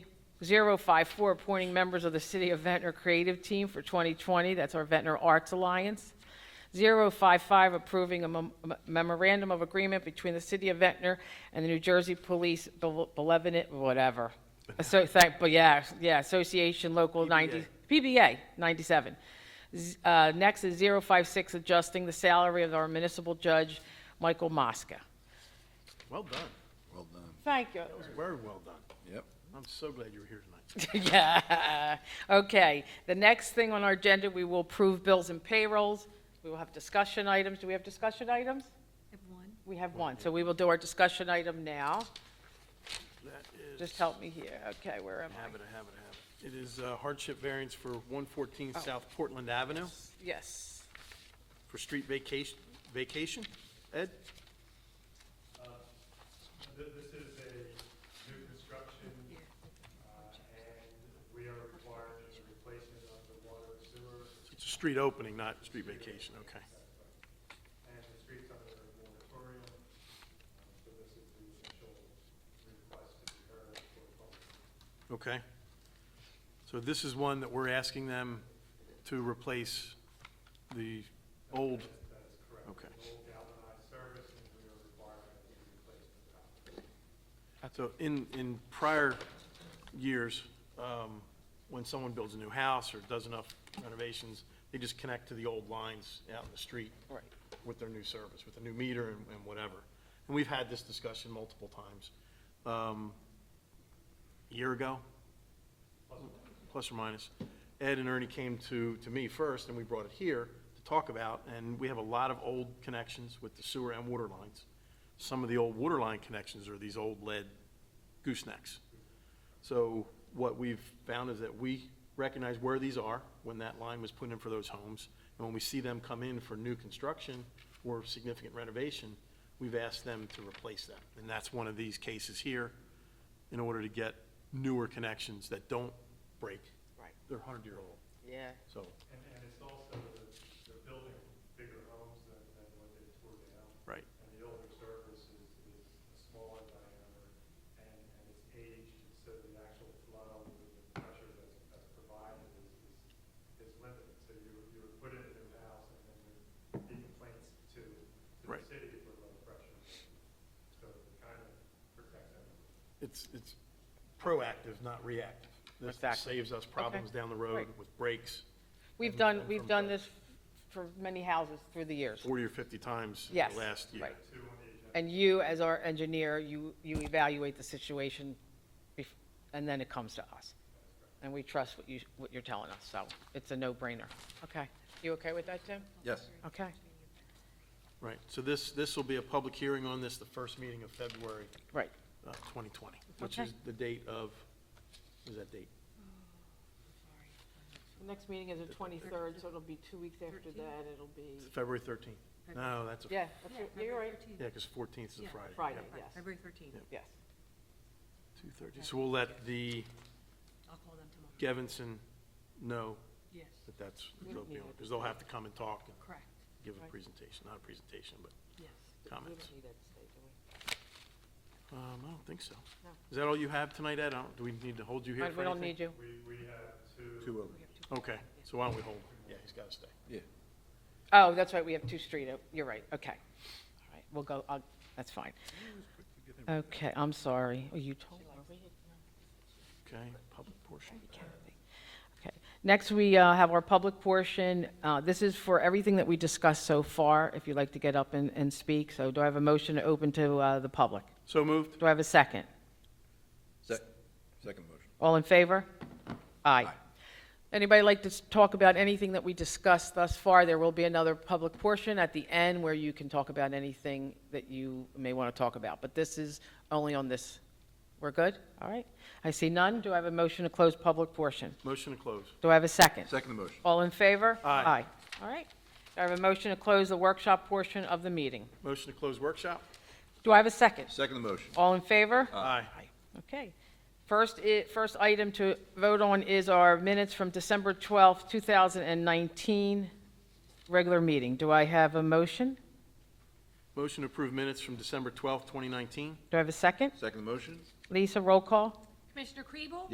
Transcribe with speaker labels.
Speaker 1: 054, appointing members of the City of Ventnor Creative Team for 2020, that's our Ventnor Arts Alliance. 055, approving a mem- memorandum of agreement between the City of Ventnor and the New Jersey Police Bel- Belevenant, whatever. So, thank, but yeah, yeah, Association Local 90, PBA 97. Z- uh, Next is 056, adjusting the salary of our municipal judge, Michael Mosca.
Speaker 2: Well done.
Speaker 3: Well done.
Speaker 1: Thank you.
Speaker 2: That was very well done.
Speaker 3: Yep.
Speaker 2: I'm so glad you were here tonight.
Speaker 1: Yeah. Okay. The next thing on our agenda, we will approve bills and payrolls. We will have discussion items. Do we have discussion items? We have one. So we will do our discussion item now.
Speaker 2: That is.
Speaker 1: Just help me here. Okay, where am
Speaker 2: I Have
Speaker 1: I?
Speaker 2: it, I have it, I have it. It is uh, hardship variance for 114 South Portland Avenue
Speaker 1: Yes.
Speaker 2: for street vacation, vacation? Ed?
Speaker 4: Uh, Th- This is a new construction, uh, and we are required as a replacement of the water and sewer,
Speaker 2: It's a street opening, not street vacation, okay.
Speaker 4: and the streets under a moratorium. Um, So this is the initial request to be heard for public.
Speaker 2: Okay. So this is one that we're asking them to replace the old,
Speaker 4: That is correct.
Speaker 2: okay.
Speaker 4: It's an Old galvanized service, and we are required to replace the top.
Speaker 2: So in, in prior years, um, when someone builds a new house or does enough renovations, they just connect to the old lines out in the street.
Speaker 1: Right.
Speaker 2: With their new service, with the new meter and, and whatever. And we've had this discussion multiple times. Um, a Year ago, plus or minus, Ed and Ernie came to, to me first, and we brought it here to talk about, and we have a lot of old connections with the sewer and water lines. Some of the old water line connections are these old lead goosenecks. So what we've found is that we recognize where these are when that line was put in for those homes. And when we see them come in for new construction or significant renovation, we've asked them to replace them. And that's one of these cases here in order to get newer connections that don't break.
Speaker 1: Right.
Speaker 2: They're hundred-year-old,
Speaker 1: Yeah.
Speaker 2: so,
Speaker 4: And, and it's also, the they're building bigger homes than, than what they tore down.
Speaker 2: right.
Speaker 4: And the older service is, is a smaller diameter, and, and it's aged, so the actual flow, the pressure that's, that's provided is, is, is limited. So you, you would put in a new house, and then there'd be complaints to, to the
Speaker 2: Right.
Speaker 4: city for low pressure. So it kind of protects them.
Speaker 2: It's, it's proactive, not reactive. This
Speaker 1: Exactly.
Speaker 2: saves us problems down the road
Speaker 1: Right.
Speaker 2: with breaks
Speaker 1: We've done, we've done this for many houses through the years.
Speaker 2: forty or fifty times in
Speaker 1: Yes.
Speaker 2: the last year.
Speaker 1: Right. And you, as our engineer, you, you evaluate the situation, bef- and then it comes to us. And we trust what you, what you're telling us, so it's a no-brainer. Okay. You okay with that, Tim?
Speaker 3: Yes.
Speaker 1: Okay.
Speaker 2: Right, so this, this will be a public hearing on this, the first meeting of February
Speaker 1: Right.
Speaker 2: uh, 2020, which
Speaker 1: Okay.
Speaker 2: is the date of, what is that date?
Speaker 1: The next meeting is the 23rd, so it'll be two weeks after that, it'll
Speaker 2: It's
Speaker 1: be,
Speaker 2: February 13th. No, that's, a yeah,
Speaker 1: yeah, that's it. Yeah, you're right,
Speaker 2: because 14th is a
Speaker 5: Yeah.
Speaker 2: Friday.
Speaker 1: Friday,
Speaker 2: yeah.
Speaker 1: yes,
Speaker 5: February 13th.
Speaker 1: yes.
Speaker 2: 2:30. So we'll let the
Speaker 5: I'll call them tomorrow.
Speaker 2: Gevinson know
Speaker 5: Yes,
Speaker 2: that that's,
Speaker 1: We
Speaker 2: they'll be
Speaker 1: need
Speaker 2: on,
Speaker 1: it.
Speaker 2: because they'll have to come and talk and
Speaker 5: correct,
Speaker 2: give a
Speaker 1: Right.
Speaker 2: presentation, not a presentation, but,
Speaker 5: yes.
Speaker 2: Comments?
Speaker 1: We don't need that today, do
Speaker 2: um, I don't think so.
Speaker 1: No.
Speaker 2: Is that all you have tonight, Ed? I don't, do we need to hold you
Speaker 1: we?
Speaker 2: here
Speaker 1: But Uh, We
Speaker 2: for
Speaker 1: don't
Speaker 2: anything?
Speaker 1: need you.
Speaker 4: We, we have two.
Speaker 3: Two of them.
Speaker 5: We have two.
Speaker 2: Okay, so why don't we hold? Yeah, he's got to stay.
Speaker 3: Yeah.
Speaker 1: Oh, that's right, we have two street, op- you're right, okay. All right, we'll go, I'll- that's fine. Okay, I'm sorry, oh, you told me.
Speaker 2: Okay, public portion.
Speaker 1: Okay. Next, we uh, have our public portion. Uh, This is for everything that we discussed so far, if you'd like to get up and, and speak. So do I have a motion to open to uh, the public?
Speaker 2: So moved?
Speaker 1: Do I have a second?
Speaker 3: Sec, second motion.
Speaker 1: All in favor? Aye.
Speaker 3: Aye.
Speaker 1: Anybody like to s- talk about anything that we discussed thus far? There will be another public portion at the end where you can talk about anything that you may want to talk about. But this is only on this. We're good? All right. I see none. Do I have a motion to close public portion?
Speaker 2: Motion to close.
Speaker 1: Do I have a second?
Speaker 3: Second motion.
Speaker 1: All in favor?
Speaker 2: Aye.
Speaker 1: All right. Do I have a motion to close the workshop portion of the meeting?
Speaker 2: Motion to close workshop?
Speaker 1: Do I have a second?
Speaker 3: Second motion.
Speaker 1: All in favor?
Speaker 2: Aye.
Speaker 1: Okay. First, i- first item to vote on is our minutes from December 12th, 2019, regular meeting. Do I have a motion?
Speaker 2: Motion to approve minutes from December 12th, 2019?
Speaker 1: Do I have a second?
Speaker 3: Second motion.
Speaker 1: Lisa, roll call?
Speaker 5: Commissioner Kriebel?